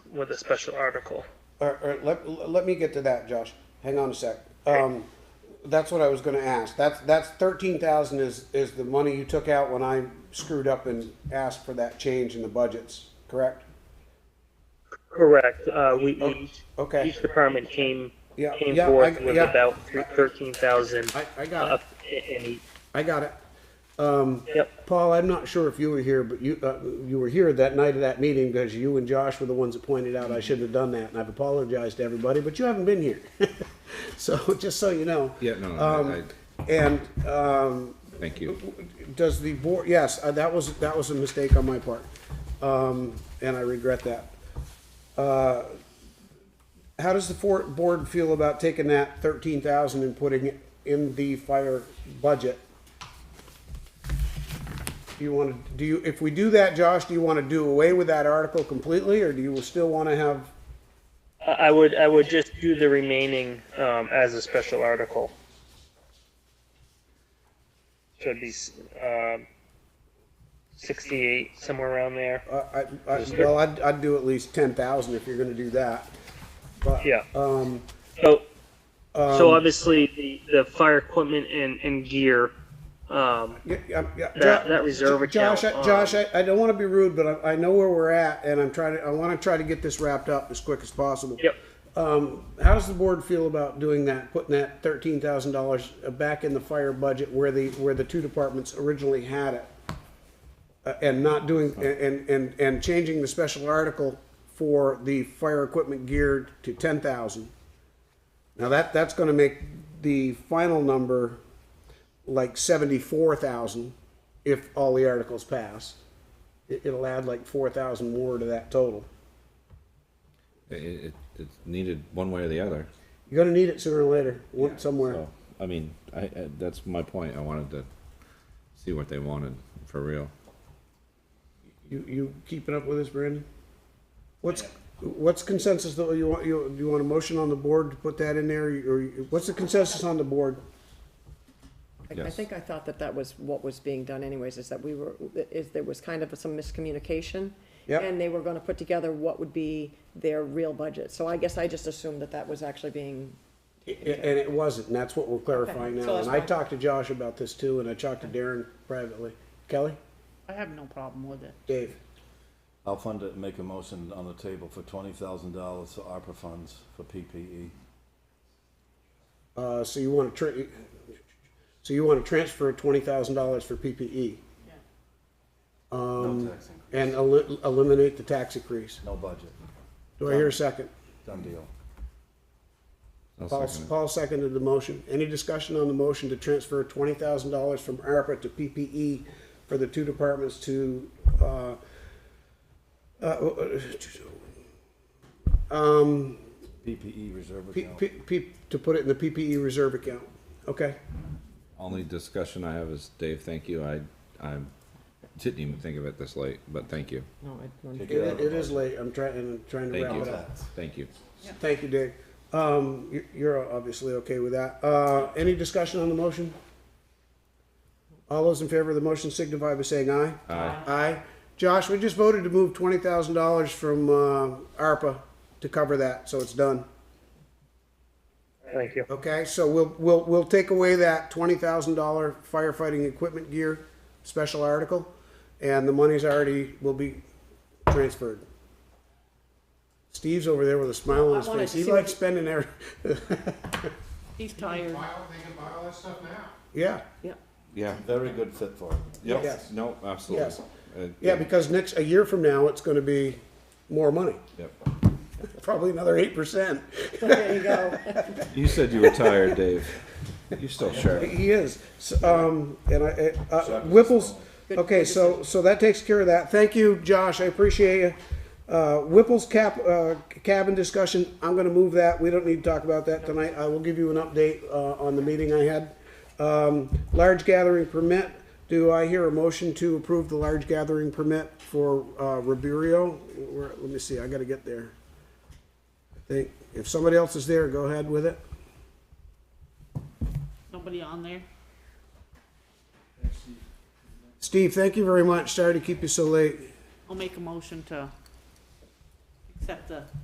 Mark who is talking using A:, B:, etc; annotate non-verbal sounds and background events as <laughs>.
A: with a special article.
B: Or, or let, let me get to that, Josh. Hang on a sec. Um, that's what I was gonna ask. That's, that's thirteen thousand is, is the money you took out when I screwed up and asked for that change in the budgets, correct?
A: Correct. Uh, we, we
B: Okay.
A: each department came
B: Yeah,
A: came
B: yeah,
A: forth
B: I-
A: with
B: yeah.
A: about thirteen thousand.
B: I, I got
A: Up
B: it.
A: in each.
B: I got it. Um,
A: Yep.
B: Paul, I'm not sure if you were here, but you, uh, you were here that night of that meeting because you and Josh were the ones that pointed out I shouldn't have done that, and I've apologized to everybody, but you haven't been here. <laughs> So, just so you know.
C: Yeah, no, no,
B: Um,
C: I-
B: And, um,
C: Thank you.
B: does the board, yes, uh, that was, that was a mistake on my part, um, and I regret that. Uh, How does the for- board feel about taking that thirteen thousand and putting it in the fire budget? Do you wanna, do you, if we do that, Josh, do you wanna do away with that article completely, or do you still wanna have,
A: I I would I would just do the remaining um, as a special article. Should be s- um, sixty-eight somewhere around there.
B: uh, I, I, well, I'd, I'd do at least ten thousand if you're gonna do that. But,
A: Yeah.
B: Um,
A: So, so obviously the, the fire equipment and, and gear. Um,
B: Yeah, yeah, yeah.
A: That-
B: Jo-
A: that reserve
B: Jo- Josh,
A: account,
B: I-
A: um,
B: Josh, I, I don't want to be rude, but I, I know where we're at, and I'm trying to, I want to try to get this wrapped up as quick as possible.
A: yep.
B: Um, how does the board feel about doing that, putting that thirteen thousand dollars back in the fire budget where the, where the two departments originally had it? Uh, and not doing, and, and, and changing the special article for the fire equipment gear to ten thousand? Now that, that's gonna make the final number like seventy-four thousand if all the articles pass. It, it'll add like four thousand more to that total.
C: It, it, it's needed one way or the other.
B: You're gonna need it sooner or later, one- somewhere.
C: So, I mean, I, I, that's my point. I wanted to see what they wanted for real.
B: You, you keeping up with us, Brandon? What's, what's consensus though? You want, you, do you want a motion on the board to put that in there? Or you- what's the consensus on the board?
C: Yes.
D: I think I thought that that was what was being done anyways, is that we were, is there was kind of some miscommunication.
B: Yep.
D: And they were gonna put together what would be their real budget. So I guess I just assumed that that was actually being,
B: I- And it wasn't, and that's what we're clarifying
D: Okay, so
B: now.
D: that's
B: And I
D: fine.
B: talked to Josh about this too, and I talked to Darren privately. Kelly?
E: I have no problem with it.
B: Dave?
F: I'll fund it and make a motion on the table for twenty thousand dollars for ARPA funds for E. PPE.
B: Uh, so you wanna tr- so you wanna transfer twenty thousand dollars for PPE
F: No tax increase,
B: Um, and el- eliminate the tax increase?
F: no budget,
B: Do I hear a second?
F: done deal.
C: I'll
B: Paul,
C: second it.
B: Paul seconded the motion. Any discussion on the motion to transfer twenty thousand dollars from ARPA to PPE for the two departments to, uh, uh, um,
F: PPE E reserve
B: P,
F: account.
B: P, P, to put it in the PPE reserve account? Okay,
C: Only discussion I have is Dave. Thank you. I I didn't even think of it this late, but thank you.
D: no, I don't.
F: Take
B: it,
F: it out of
B: it
F: the
B: is late. I'm trying, I'm trying to
C: Thank
B: wrap
C: you.
B: it up.
C: Thank you.
B: Thank you, Dave. Um, you- you're obviously okay with that. Uh, any discussion on the motion? All those in favor of the motion signify by saying aye. Aye. Aye. Josh, we just voted to move twenty thousand dollars from, uh, ARPA to cover that, so it's done.
A: Thank you.
B: Okay, so we'll, we'll, we'll take away that twenty thousand dollar firefighting equipment gear special article, and the money's already, will be transferred. Steve's over there with a smile on his
D: wanted
B: face.
D: to
B: He
D: see what-
B: likes spending
D: <laughs>
B: every,
E: He's tired.
B: yeah.
D: Yeah.
C: Yeah.
F: Very good fit for it.
C: Yep.
B: Yes.
C: No. Absolutely.
B: Yes.
C: Uh,
B: Yeah, because next, a year from now, it's gonna be more money,
C: Yep.
B: probably another eight percent.
D: There you go.
C: You said you were
B: <laughs>
C: tired, Dave. You're still sharp.
B: He is, So, um, and I, I- uh, Whipple's, okay, so, so that takes care of that. Thank you, Josh, I appreciate you. Uh, Whipple's cap, uh, cabin discussion, I'm gonna move that, we don't need to talk about that tonight. I will give you an update, uh, on the meeting I had. Um, large gathering permit, do I hear a motion to approve the large gathering permit for, uh, Riberio? Where, let me see, I gotta get there. I think, if somebody else is there, go ahead with it.
E: Nobody on there?
B: Steve, thank you very much. Sorry to keep you so late.
E: I'll make a motion to except the